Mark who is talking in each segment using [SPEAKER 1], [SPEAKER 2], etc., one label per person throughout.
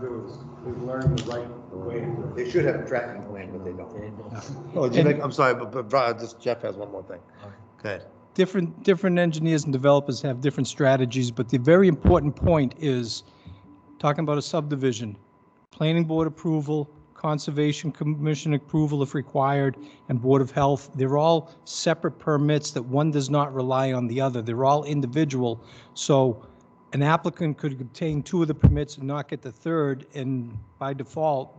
[SPEAKER 1] do is, is learn the right way to do it.
[SPEAKER 2] They should have a tracking plan, but they don't. Oh,
[SPEAKER 3] do you make-
[SPEAKER 2] I'm sorry, but, but Brian, just Jeff has one more thing. Okay.
[SPEAKER 3] different, different engineers and developers have different strategies, but the very important point is, talking about a subdivision, planning board approval, conservation commission approval if required, and board of health, they're all separate permits that one does not rely on the other. They're all individual. So an applicant could obtain two of the permits and not get the third, and by default,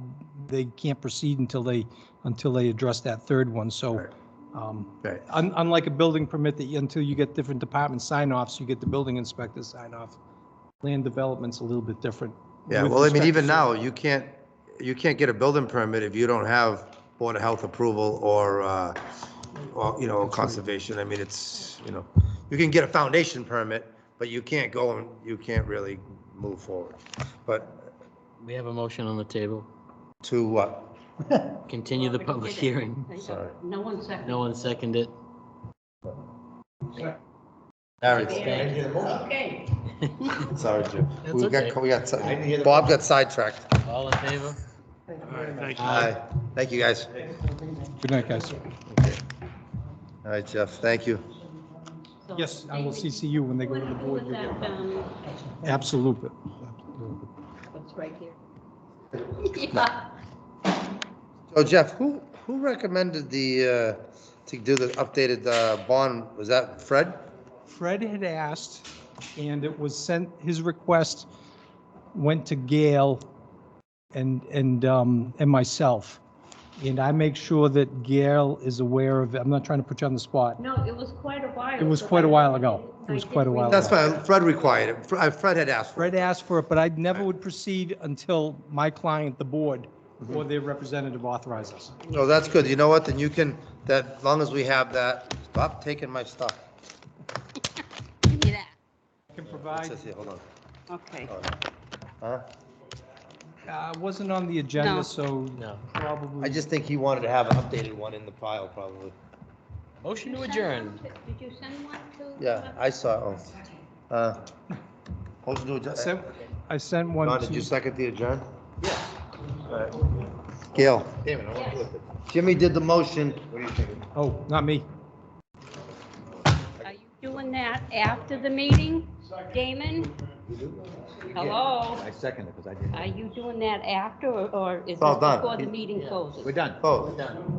[SPEAKER 3] they can't proceed until they, until they address that third one. So,
[SPEAKER 2] Right.
[SPEAKER 3] um,
[SPEAKER 2] Okay.
[SPEAKER 3] Un- Unlike a building permit that you, until you get different department sign-offs, you get the building inspector sign-off. Land development's a little bit different.
[SPEAKER 2] Yeah,
[SPEAKER 3] with
[SPEAKER 2] well, I mean,
[SPEAKER 3] respect to
[SPEAKER 2] even
[SPEAKER 3] cer-
[SPEAKER 2] now, you can't, you can't get a building permit if you don't have Board of Health approval or, uh, or, you know, conservation. I mean, it's, you know, you can get a foundation permit, but you can't go and, you can't really move forward. But
[SPEAKER 4] We have a motion on the table.
[SPEAKER 2] to what?
[SPEAKER 4] Continue the public hearing.
[SPEAKER 2] Sorry.
[SPEAKER 5] No one second.
[SPEAKER 4] No one seconded.
[SPEAKER 2] All right,
[SPEAKER 4] Thank you.
[SPEAKER 5] Okay.
[SPEAKER 2] sorry, Jim.
[SPEAKER 4] That's
[SPEAKER 2] We got,
[SPEAKER 4] okay.
[SPEAKER 2] we got, Bob got sidetracked.
[SPEAKER 4] All in favor? Uh,
[SPEAKER 2] Aye. Thank you, guys.
[SPEAKER 3] Good night, guys.
[SPEAKER 2] All right, Jeff, thank you.
[SPEAKER 5] So,
[SPEAKER 3] Yes, I will
[SPEAKER 5] David,
[SPEAKER 3] CC you when they go
[SPEAKER 5] What
[SPEAKER 3] to
[SPEAKER 5] do
[SPEAKER 3] the
[SPEAKER 5] we do
[SPEAKER 3] board.
[SPEAKER 5] with
[SPEAKER 3] you'll
[SPEAKER 5] that,
[SPEAKER 3] get-
[SPEAKER 5] um,
[SPEAKER 3] Absolute.
[SPEAKER 5] what's right here? Yeah.
[SPEAKER 2] So Jeff, who, who recommended the, uh, to do the updated uh, bond? Was that Fred?
[SPEAKER 3] Fred had asked, and it was sent, his request went to Gail and, and, um, and myself. And I make sure that Gail is aware of, it. I'm not trying to put you on the spot.
[SPEAKER 5] No, it was quite a while.
[SPEAKER 3] It was
[SPEAKER 5] so
[SPEAKER 3] quite a
[SPEAKER 5] I-
[SPEAKER 3] while ago. It
[SPEAKER 5] I
[SPEAKER 3] was
[SPEAKER 5] did
[SPEAKER 3] quite a while
[SPEAKER 5] remember.
[SPEAKER 2] That's fine, Fred required it. Fre- uh, Fred had asked for it.
[SPEAKER 3] Fred asked for it, but I never would proceed until my client, the board, or their representative authorizes.
[SPEAKER 2] No, that's good. You know what? Then you can, that, as long as we have that, stop taking my stuff.
[SPEAKER 5] Give me that.
[SPEAKER 3] I can
[SPEAKER 2] It
[SPEAKER 3] provide,
[SPEAKER 2] says here, hold on.
[SPEAKER 5] Okay.
[SPEAKER 2] Hold on. Huh?
[SPEAKER 3] uh, wasn't on the
[SPEAKER 5] No.
[SPEAKER 3] agenda, so
[SPEAKER 4] No.
[SPEAKER 2] I
[SPEAKER 3] probably.
[SPEAKER 2] just think he wanted to have an updated one in the file, probably.
[SPEAKER 4] Motion to
[SPEAKER 5] Did you send
[SPEAKER 4] adjourn.
[SPEAKER 5] one to- Did you send one to? uh,
[SPEAKER 2] Yeah, I saw, it. oh. Uh, Motion to
[SPEAKER 3] I
[SPEAKER 2] adjourn.
[SPEAKER 3] sent- I sent one
[SPEAKER 2] Don, did you
[SPEAKER 3] to,
[SPEAKER 2] second the adjourn? Yes. Gail,
[SPEAKER 5] I want to look
[SPEAKER 2] Jimmy did the motion.
[SPEAKER 3] oh, not me.
[SPEAKER 5] Are you doing that after the meeting, Damon? Hello?
[SPEAKER 6] I second it because I didn't.
[SPEAKER 5] Are you doing that after, or or is it
[SPEAKER 2] all done.
[SPEAKER 5] before the meeting closes?
[SPEAKER 6] We're done.
[SPEAKER 2] Oh,
[SPEAKER 6] Done.